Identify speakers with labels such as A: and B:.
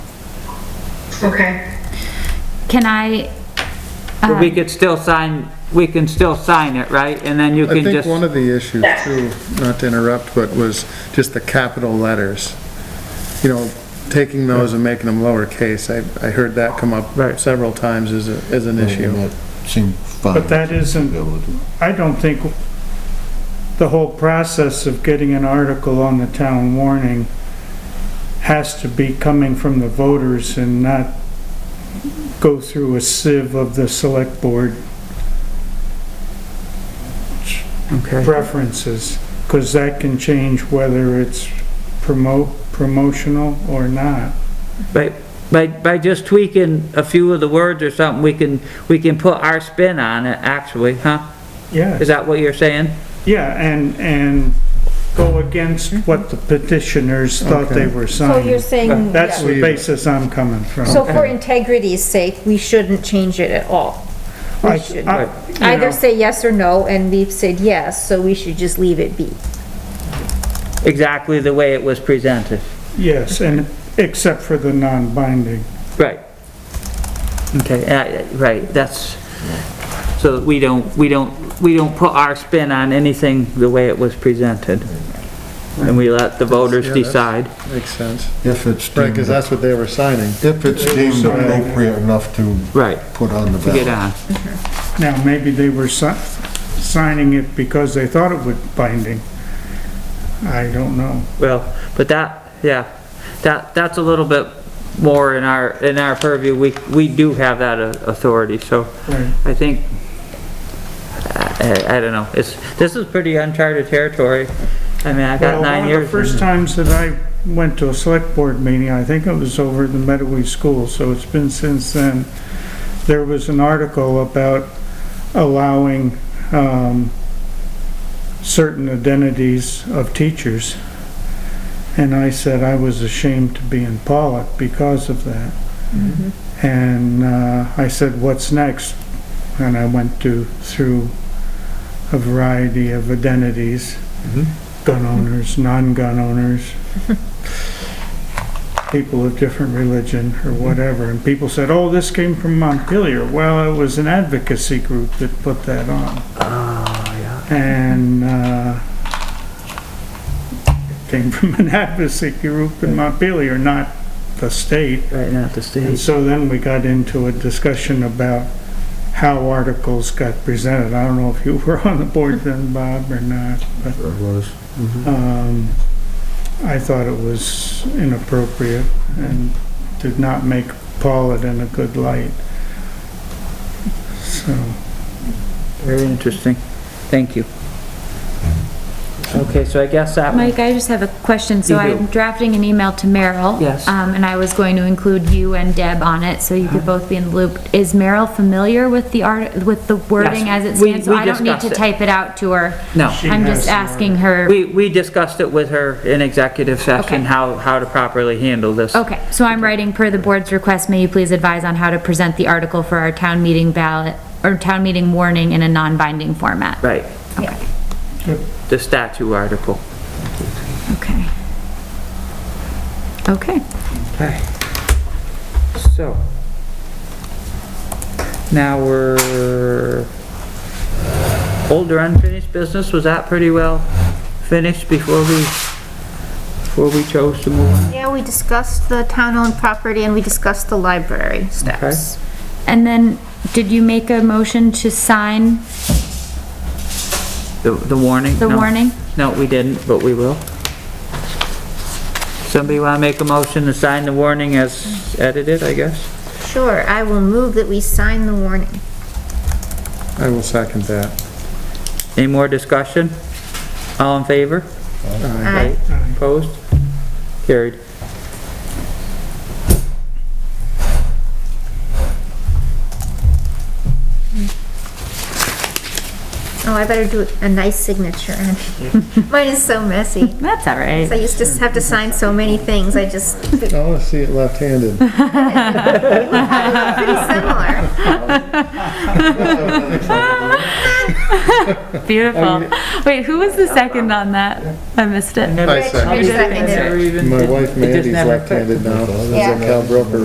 A: Okay.
B: Can I,
C: But we could still sign, we can still sign it, right? And then you
D: I
C: can
D: think
C: just,
D: one of the issues
A: Yeah.
D: too, not to interrupt, but was just the capital letters. You know, taking those and making them lowercase, I, I heard that come up
C: Right.
D: several times as, a- as an issue.
E: That seemed fine.
F: But that isn't, I don't think the whole process of getting an article on the town warning has to be coming from the voters and not go through a sieve of the select board
C: okay,
F: preferences, because that can change whether it's promote, promotional or not.
C: by, by, by just tweaking a few of the words or something, we can, we can put our spin on it, actually, huh?
F: Yeah.
C: Is that what you're saying?
F: Yeah, and, and go against what the petitioners thought they were
G: So you're
F: signing.
G: saying,
F: That's
G: yeah.
F: the basis I'm coming from.
G: so for integrity's sake, we shouldn't change it at all.
F: I-
G: We shouldn't.
F: I- you
G: Either
F: know,
G: say yes or no, and we've said yes, so we should just leave it be.
C: Exactly the way it was presented.
F: Yes, and except for the non-binding.
C: Right. Okay, uh, uh, right, that's, so that we don't, we don't, we don't put our spin on anything the way it was presented. And we let the voters
D: Yeah, that's-
C: decide.
D: Makes sense. Mm-hmm.
E: If it's
D: Right,
E: deemed,
D: because that's what they were signing.
E: if it's deemed appropriate enough to
C: Right.
E: put on the
C: To get
E: ballot.
C: on.
F: Now, maybe they were si- signing it because they thought it would binding. I don't know.
C: Well, but that, yeah, that, that's a little bit more in our, in our purview. We, we do have that uh, authority, so
F: Right.
C: I think, I, I- I don't know. It's, this is pretty uncharted territory. I mean, I got
F: Well,
C: nine
F: One of
C: years.
F: the first
C: in-
F: times that I went to a select board meeting, I think it was over at the Medowee School, so it's been since then, there was an article about allowing, um, certain identities of teachers. And I said I was ashamed to be in Pollock because of that.
C: Mm-hmm.
F: And, uh, I said, what's next? And I went to, through a variety of identities gun owners, non-gun owners, people of different religion or whatever, and people said, oh, this came from Montpelier. Well, it was an advocacy group that put that on. And, uh, it came from an advocacy group in Montpelier, not the state.
C: Right now at the stage.
F: And so then we got into a discussion about how articles got presented. I don't know if you were on the board then, Bob, or not, but
E: It was.
F: um, I thought it was inappropriate and did not make Pollitt in a good light. So,
C: Very interesting. Thank you. Okay, so I guess that, one-
B: Mike, I just have a question. So
C: You do.
B: I'm drafting an email to Merrill.
C: Yes.
B: Um, and I was going to include you and Deb on it, so you could
C: Uh-huh.
B: both be in the loop. Is Merrill familiar with the art, with the wording as
C: Yes.
B: it
C: We-
B: stands? So
C: we
B: I don't need
C: discussed
B: to
C: it.
B: type it out to her.
C: no.
F: She
B: I'm
F: has
B: just
F: the
B: asking her.
C: We, we discussed it with her in executive session,
B: Okay.
C: how, how to properly handle this.
B: Okay, so I'm writing per the board's request, may you please advise on how to present the article for our town meeting ballot, or town meeting warning in a non-binding format?
C: Right,
B: Okay.
C: the statue article.
B: Okay. Okay.
C: Okay. So. Now we're, older unfinished business, was that pretty well finished before we, before we chose to move on?
G: Yeah, we discussed the town-owned property, and we discussed the library
C: steps.
B: And then, did you make a motion to sign
C: The, the warning?
B: the
C: No.
B: warning?
C: No, we didn't, but we will. Somebody want to make a motion to sign the warning as edited, I guess?
G: Sure, I will move that we sign the warning.
D: I will second that.
C: Any more discussion? All in favor?
G: Aye.
C: Opposed? Carried.
G: Oh, I better do a nice signature. Mine is so messy.
B: That's all
G: I
B: right.
G: used to have to sign so many things, I just, pretty
D: Oh, I want to see it left-handed.
G: similar.
B: Beautiful. Wait, who was the second on that? I missed it.
D: I
G: Rich
D: second.
G: seconded it.
D: My wife
C: It just
D: Mandy's
C: never clicked.
D: left-handed now. Is
G: Yeah.
D: that Cal Broker